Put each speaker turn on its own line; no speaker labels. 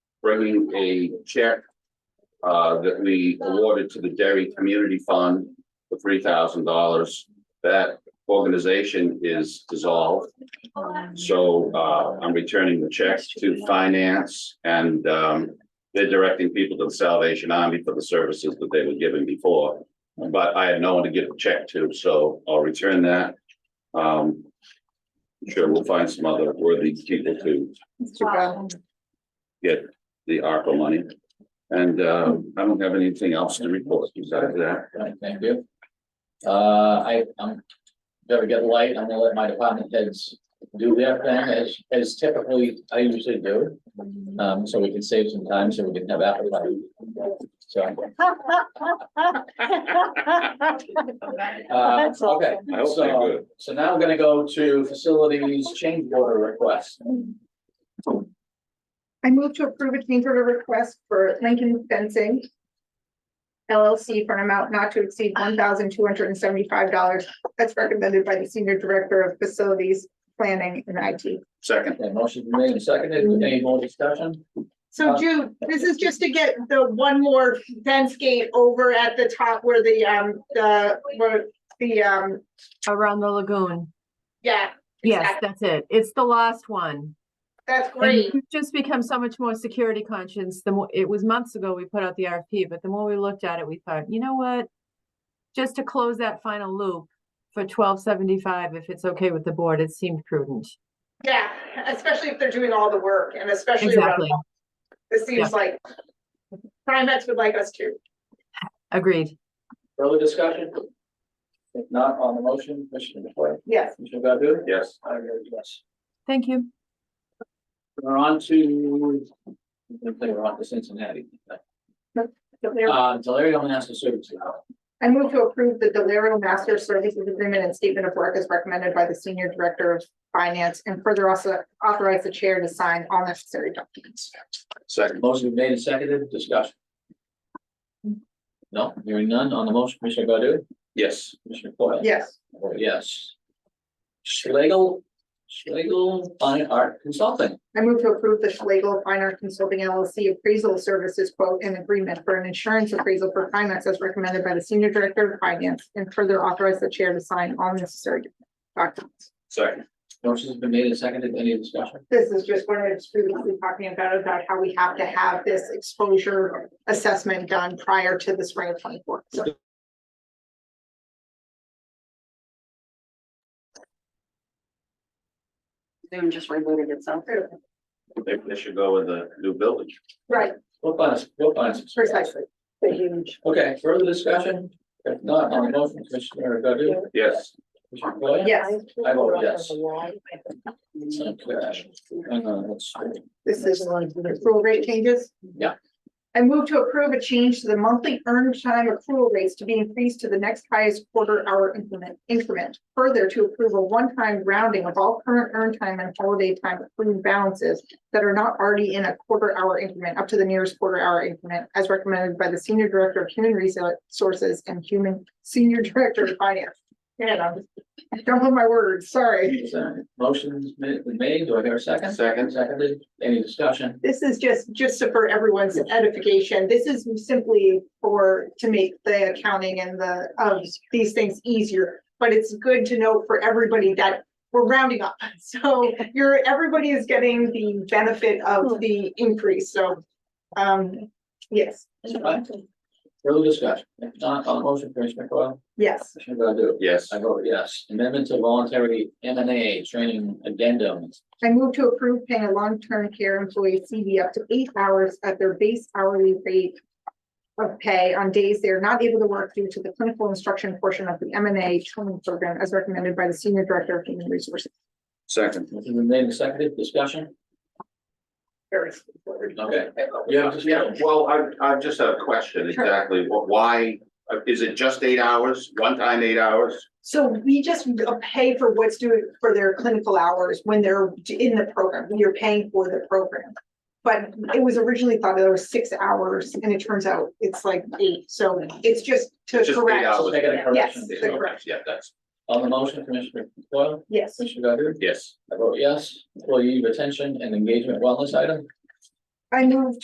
bringing a check uh, that we awarded to the Derry Community Fund for three thousand dollars. That organization is dissolved. So uh, I'm returning the check to finance and um, they're directing people to the Salvation Army for the services that they were given before. But I had no one to give a check to, so I'll return that. Um, sure, we'll find some other worthy people to get the ARPA money. And uh, I don't have anything else to report besides that.
Right, thank you. Uh, I, I'm very good light. I'm gonna let my department heads do their thing as, as typically I usually do. Um, so we can save some time, so we can have appetite. So, uh,
That's
okay.
awesome.
I hope they're
So-
good.
So now I'm gonna go to facilities change order request.
I move to approve a change order request for Lincoln Fencing LLC for an amount not to exceed one thousand two hundred and seventy-five dollars as recommended by the Senior Director of Facilities Planning and IT.
Second,
Okay, motion been made and seconded. Any more discussion? Uh,
So Jude, this is just to get the one more fence gate over at the top where the, um, the, where the, um,
Around the lagoon.
yeah,
Yes,
Exactly.
that's it. It's the last one.
that's
And
great.
we've Just become so much more security conscious. The more, it was months ago we put out the RFP, but the more we looked at it, we thought, you know what? Just to close that final loop for twelve seventy-five, if it's okay with the board, it seemed prudent.
Yeah, especially if they're doing all the work and especially around,
Exactly.
this seems like Primex would like us to.
Agreed.
Further discussion? If not on the motion, Commissioner DeFoy,
Yes,
Commissioner Godu?
yes.
I vote yes.
Thank you.
We're on to, I think we're on to Cincinnati. Uh, Delary only has to serve two.
I move to approve the Delario Master Services Agreement and Statement of Work as recommended by the Senior Director of Finance and further also authorize the chair to sign all necessary documents.
Second,
Motion been made and seconded, discussion. No, hearing none on the motion, Commissioner Godu,
yes.
Commissioner Foil.
Yes,
Oh, Yes. Schlegel, Schlegel Fine Art Consulting,
I move to approve the Schlegel Fine Art Consulting LLC appraisal services quote and agreement for an insurance appraisal for finance as recommended by the Senior Director of Finance and further authorize the chair to sign all necessary documents.
Second,
motion's been made and seconded, any discussion?
This is just what I was previously talking about, about how we have to have this exposure assessment done prior to the spring of twenty-four. So
Zoom just rebooted itself.
they, they should go with the new building.
Right,
We'll find, us- we'll find. us.
precisely.
Okay, further discussion, if not on the motion, Commissioner Godu,
Yes,
Commissioner Foil.
Yes,
I vote yes. Uh, let's-
this is accrual rate changes.
Yeah.
I move to approve a change to the monthly earned time accrual rates to be increased to the next highest quarter hour increment increment. Further to approve a one-time rounding of all current earned time and holiday time accrued balances that are not already in a quarter hour increment up to the nearest quarter hour increment as recommended by the Senior Director of Human Resources and Human Senior Director of Finance. Man, I'm- I don't have my words, sorry.
Is that Motion's been made, do I hear a second?
Second.
Seconded, any discussion?
This is just, just for everyone's edification. This is simply for, to make the accounting and the, of these things easier. But it's good to know for everybody that we're rounding up. So you're, everybody is getting the benefit of the increase. So, um, yes,
Further discussion, if not, on the motion, Commissioner Coyle,
yes.
Commissioner Godu?
yes.
I vote yes, amendment to voluntary M and A training addendum,
I move to approve paying a long-term care employee CV up to eight hours at their base hourly rate of pay on days they are not able to work due to the clinical instruction portion of the M and A training program as recommended by the Senior Director of Human Resources.
Second,
motion been made and seconded, discussion,
Very-
okay. Yeah,
yeah, well, I, I just have a question, exactly, Wh- why, uh, is it just eight hours, one time eight hours?
So we just pay for what's due for their clinical hours when they're in the program, when you're paying for the program. But it was originally thought that it was six hours and it turns out it's like eight. So it's just to
It's just eight
correct.
hours.
Just making a correction.
Yes.
Yeah, okay, Yeah, that's,
On the motion, Commissioner Coyle,
Yes.
Commissioner Godu?
yes.
I vote yes, employee retention and engagement wellness item.
I move